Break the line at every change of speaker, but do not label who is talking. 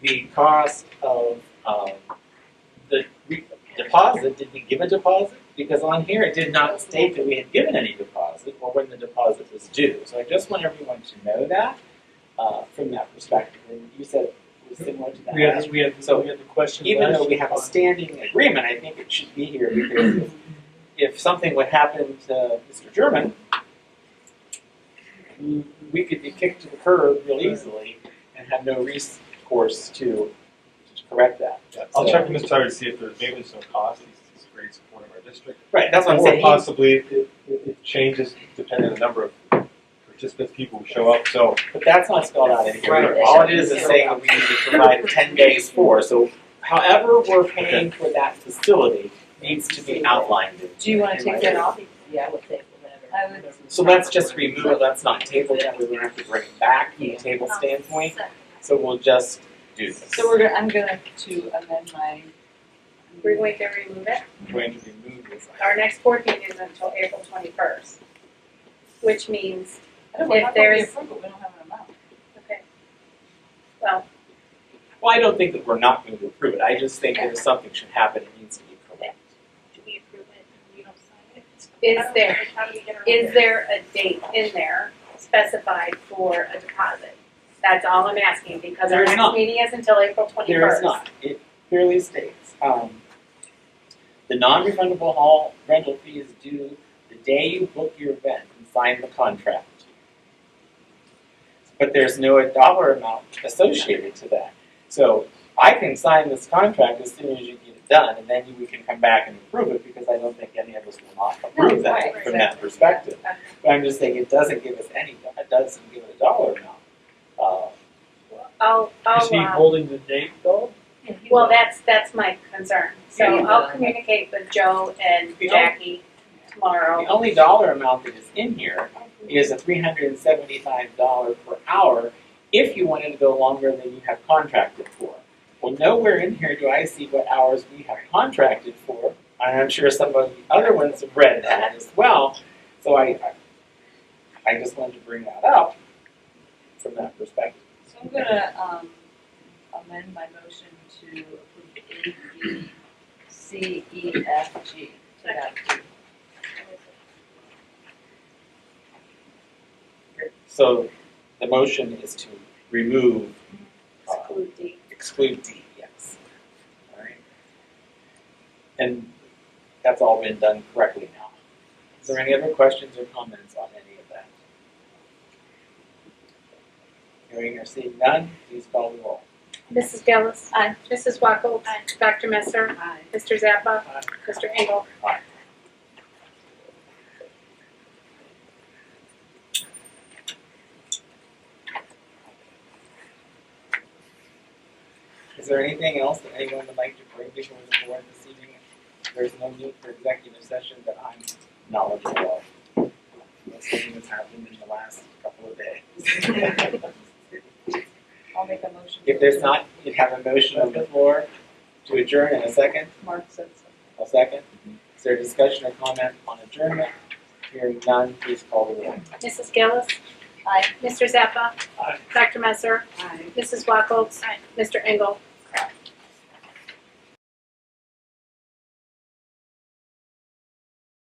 the cost of um, the re- deposit, did we give a deposit? Because on here, it did not state that we had given any deposit or when the deposit was due. So I just want everyone to know that uh, from that perspective. And you said it was similar to that.
We had, we had,
So-
we had the question.
Even
last
though we have a
time.
standing agreement, I think it should be here because if, if something would happen to Mr. German, we- we could be kicked to the curb real easily and have no recourse to, to correct that.
I'll check with Ms. Tyler to see if there's, maybe there's no cost, he's, he's a great supporter of our district.
Right, that's what I'm
Or
saying.
possibly, it, it, it changes depending on the number of participants, people who show up, so.
But that's not spelled out in here.
Right.
either. All it is is saying that we need to provide ten days for, so however we're paying for that facility needs to be outlined. in-
Do you wanna
in
take
writing.
that off?
Yeah, I would take whatever.
I would.
So let's just remove it, let's not table it, we're gonna have to bring it back from a table standpoint, so we'll just do this.
So we're, gonna- I'm gonna to amend my.
We're going to remove it.
Going to remove this.
Our next board meeting is until April twenty-first, which means,
I don't know,
If
how can we
there's-
approve it? We don't have an amount.
okay, well,
Well, I don't think that we're not going to approve it, I just think that if something should happen, it needs to be corrected.
Do we approve it and we don't sign it?
is there,
How do we get around
is
it?
there a date in there specified for a deposit? That's all I'm asking, because
There
our
is
next
not.
meeting is until April twenty-first.
There is not, it clearly states, um, the non-refundable hall rental fee is due the day you book your event and sign the contract. But there's no dollar amount associated to that. So I can sign this contract as soon as you get it done, and then we can come back and approve it, because I don't think any of us will not approve
right,
that from that
exactly, yeah.
perspective. But I'm just saying, it doesn't give us any, it doesn't give it a dollar amount. Uh,
I'll, I'll,
Is he
uh,
holding the date though?
well, that's, that's my concern, so
Yeah, you
I'll
will.
communicate with Joe and
The only-
Jackie tomorrow.
The only dollar amount that is in here is a three hundred and seventy-five dollar per hour if you wanted to go longer than you have contracted for. Well, nowhere in here do I see what hours we have contracted for, and I'm sure some of the other ones have read that as well. So I, I- I just wanted to bring that up from that perspective.
So I'm gonna, um, amend my motion to approve A, B, C, E, F, G. to that.
So the motion is to remove, uh,
Exclude D.
exclude D, yes. All right. And that's all been done correctly now. Is there any other questions or comments on any of that? Hearing or seeing none, please call the roll.
Mrs. Gillis. Aye. Mrs. Wackel.
Aye.
Dr. Messer.
Aye.
Mr. Zappa.
Aye.
Mr. Engel.
Is there anything else that anyone would like to bring before the board this evening? There's no need for executive session that I'm knowledgeable of. Something that's happened in the last couple of days.
I'll make a motion.
If there's not, you'd have a motion on the floor to adjourn in a second.
Mark said something.
A second. Is there discussion or comment on adjournment? Hearing none, please call the roll.
Mrs. Gillis.
Aye.
Mr. Zappa.
Aye.
Dr. Messer.
Aye.
Mrs. Wackel. Mr. Engel.